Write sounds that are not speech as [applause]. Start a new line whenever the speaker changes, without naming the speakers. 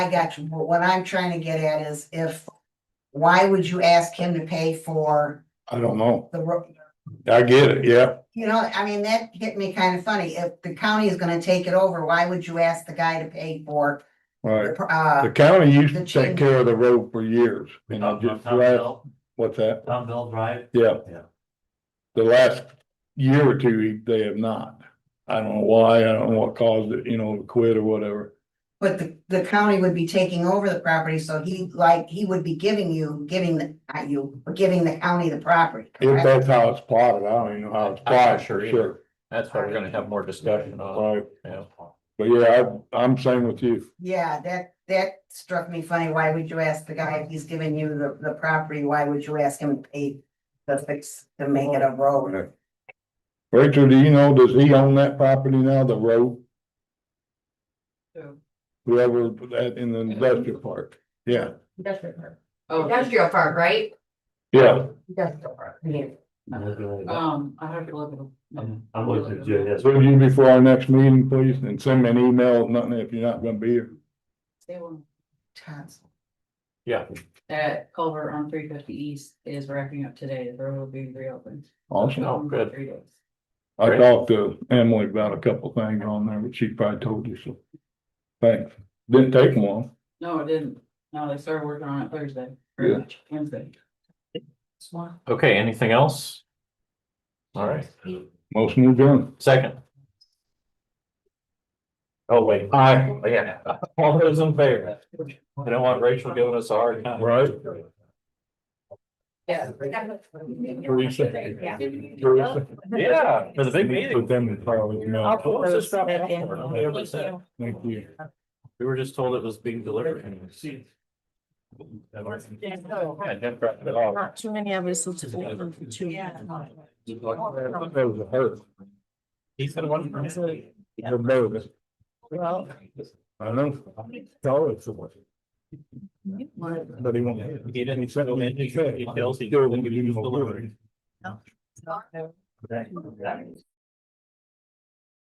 I got you, but what I'm trying to get at is if, why would you ask him to pay for
I don't know.
the road?
I get it, yeah.
You know, I mean, that hit me kind of funny. If the county is gonna take it over, why would you ask the guy to pay for,
Right. The
uh,
county used to
The
take
change.
care of the road for years. And I
Tom
just,
Tom
last-
Bell,
what's that?
Tom Bell Drive,
Yeah.
Yeah.
The last year or two, they have not. I don't know why, I don't know what caused it, you know, to quit or whatever.
but the, the county would be taking over the property, so he, like, he would be giving you, giving the, not you, but giving the county the property,
If
correct?
that's how it's plotted, I don't even know how it's
I'm not
plotted,
sure
for
either.
sure.
That's why we're gonna have more discussion on,
Right.
yeah.
But yeah, I, I'm same with you.
Yeah, that, that struck me funny. Why would you ask the guy if he's giving you the, the property? Why would you ask him to pay the fix, to make it a road?
Rachel, do you know, does he own that property now, the road? Whoever put that in the industrial park, yeah,
Industrial park.
Industrial park, right?
yeah,
Industrial park. yeah.
I'm looking at-
Um, I have to look at them.
I'm looking at Jay, yes.
so you before our next meeting, please, and send me an email, nothing if you're not gonna be here.
They will-
Tons.
Yeah,
That culvert on three fifty east is wrapping up today, the road will be reopened.
Awesome,
Oh, good.
Three days.
I talked to Emily about a couple things on there, but she probably told you, so. Thanks, didn't take long,
No, it didn't, no, they started working on it Thursday,
Yeah.
or Wednesday. Swan.
okay, anything else? All right,
motion adjourned.
second. Oh, wait. Aye. Yeah, [laughs] all those in favor, I don't want Rachel giving us a hard time.
Right.
Yeah.
Teresa.
Yeah.
Teresa.
Yeah, for the big meeting.
Put them in probably, you
How
know,
close is that airport? Nobody ever said.
thank you.
We were just told it was being delivered.
Yeah, no.
Yeah, Jeff dropped it off.
Not too many of us. will take it for two.
That was a hurt.
He said one.
They're nervous.
Well,
I know, tell her it's the worst. But he won't.
He didn't-
He said, he said,
He tells he-
"Still won't give you no word."
no.